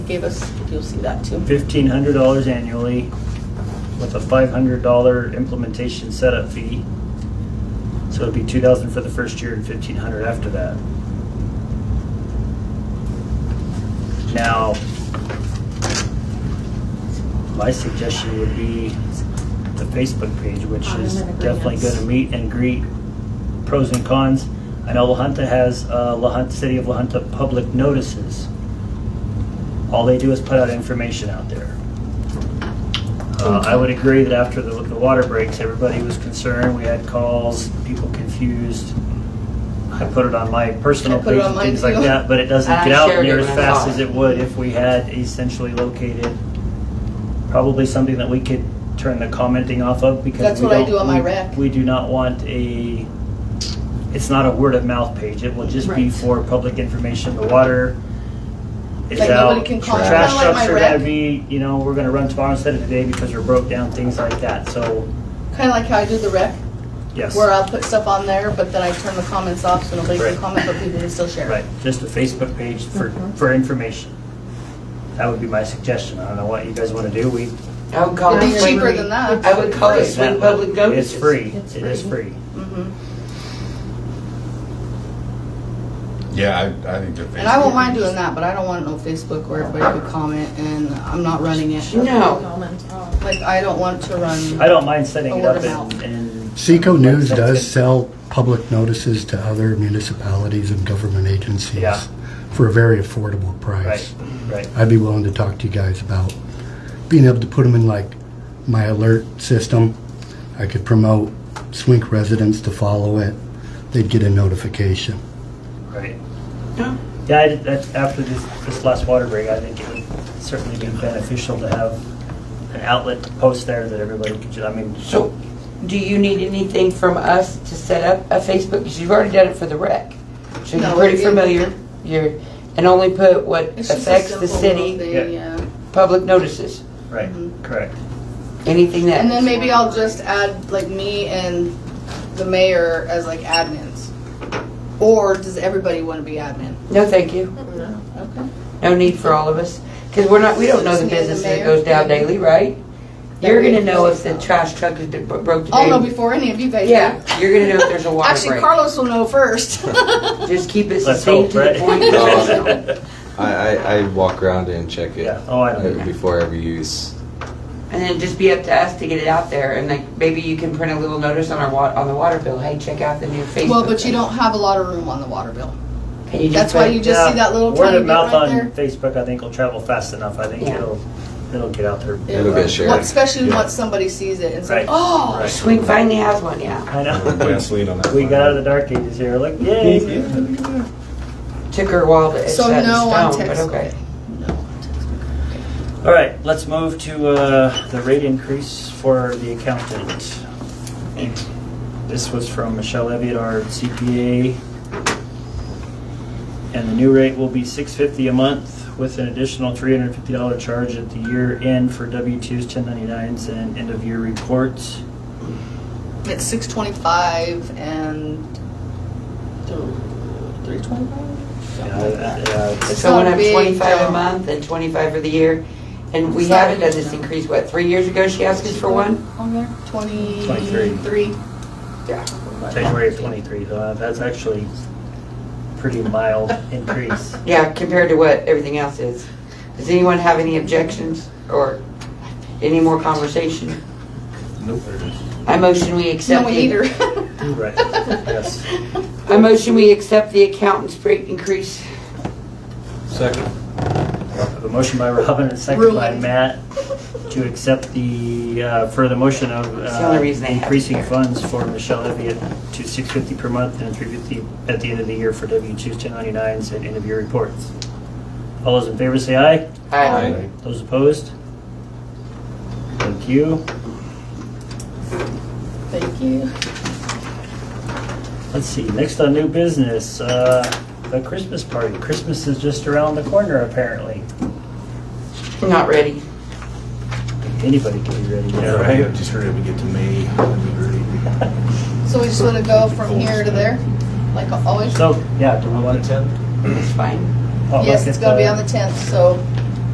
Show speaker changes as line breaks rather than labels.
gave us, you'll see that too.
fifteen hundred dollars annually with a five hundred dollar implementation setup fee. So it'd be two thousand for the first year and fifteen hundred after that. Now, my suggestion would be the Facebook page, which
I'm
is
in agreement.
definitely gonna meet and greet pros and cons. I know La Junta has, uh, La Junta, City of La Junta public notices. All they do is put out information out there. Uh, I would agree that after the, the water breaks, everybody was concerned, we had calls, people confused. I put it on my personal
I put it
page
on
and
mine
things like
too.
that, but it doesn't
I
get out
shared it
near as
when I
fast
saw
as
it.
it would if we had a centrally located, probably something that we could turn the commenting off of because
That's
we
what I
don't-
do on my
we-
rec.
We do not want a, it's not a word of mouth page, it will just be
Right.
for public information, the water is
Like,
out.
nobody can call it.
Trash
Kinda like
trucks
my
are gonna
rec.
be, you know, we're gonna run tomorrow instead of today because we're broke down, things like that, so,
Kind of like how I do the rec,
yes.
where I'll put stuff on there, but then I turn the comments off so nobody
Right.
can comment, but people can still share.
Right, just a Facebook page for,
Mm-hmm.
for information. That would be my suggestion, I don't know what you guys wanna do, we.
I would call
It'd
it
be
swing.
cheaper than that.
I would call it
Right, that-
swing public notices.
It's free,
It's
it is free.
Mhm.
Yeah, I, I think that.
And I won't mind doing that, but I don't want no Facebook where everybody could comment and I'm not running it.
No,
Comment.
Like, I don't want to run.
I don't mind setting it
Word
up
of
and,
mouth.
and.
Seco News
That's
does
it.
sell public notices to other municipalities and government agencies
Yeah.
for a very affordable price.
Right, right,
I'd be willing to talk to you guys about being able to put them in like my alert system. I could promote Swink residents to follow it. They'd get a notification.
right.
no,
Yeah, I, that, after this, this last water break, I think it would certainly be beneficial to have an outlet to post there that everybody could, ju- I mean,
so, do you need anything from us to set up a Facebook, because you've already done it for the rec? So
No,
you're pretty
it-
familiar, you're, and only put what
It's just a
affects the
simple little
city,
thing, Yeah.
public notices,
right,
Mm-hmm.
correct.
anything that.
And then maybe I'll just add like me and the mayor as like admins. Or does everybody want to be admin?
No, thank you,
Okay.
no need for all of us, because we're not, we don't know
Just
the
me and the
business that
mayor.
goes down daily, right?
Yeah,
You're
we
gonna
can
know
do
if the
that.
trash truck is bro- broke today.
I'll know Oh, before any of you guys.
Yeah,
do.
you're gonna know if there's a water break.
Actually, Carlos will know first.
Just keep it
Let's hope,
succinct to the
right?
point.
No. I, I, I walk around and check it
Yeah, oh, I don't
uh, before every use.
And then just be up to us to get it out there, and like, maybe you can print a little notice on our wa, on the water bill, hey, check out the new Facebook.
well, but you
thing."
don't have a lot of room on the water bill.
Can you
That's
just
why
put-
you just see that little
Word
tiny
of
bit
mouth
right
on
there.
Facebook, I think will travel fast enough, I think
Yeah.
it'll, it'll get out there.
Yeah.
It'll get shared.
Well, especially
Yeah.
once somebody sees it and says,
Right.
"Oh,
Right.
Swing finally has one, yeah.
I know,
Gasoline on that.
we
fire.
got out of the dark ages here, like, yay.
Took her a while to, it's
So
set in
no on
stone, but
text.
okay.
All right, let's move to uh, the rate increase for the accountant. This was from Michelle Elliott, our CPA. And the new rate will be six fifty a month with an additional three hundred and fifty dollar charge at the year end for W twos, ten ninety nines, and end of year reports.
it's 6:25 and three twenty-five.
Uh, it's-
It's
So
not
when
a
I'm
big
twenty-five
jump.
a month and twenty-five for the year, and we
It's not a
haven't done
big
this
jump.
increase, what, three years ago she asked us for one?
on there.
Twenty-three.
Twenty-three.
Yeah.
January of twenty-three, uh, that's actually pretty mild increase.
Yeah, compared to what everything else is. Does anyone have any objections or any more conversation?
Nope.
I motion we
No,
accept.
we
the-
either.
Right, yes.
I motion we accept the accountant's rate increase.
Second.
I have A motion by Robin and a second by
Ruined.
Matt to accept the, uh, further motion of
It's the only
uh,
reason they have it
increasing
there.
funds for Michelle Elliott to six fifty per month and three fifty at the end of the year for W two ten ninety nines and end of year reports. All those in favor say aye.
Aye.
Those opposed? Thank you.
Thank you.
Let's see, next on new business, uh, the Christmas party. Christmas is just around the corner apparently.
Not ready.
Anybody can be ready.
Yeah, right. Just hurry up and get to May. That'd be
So we just want to go from here to there, like always?
So, yeah, do we want to?
great.
It's fine.
oh,
Yes,
look
it's
at
gonna be
the-
on the tenth, so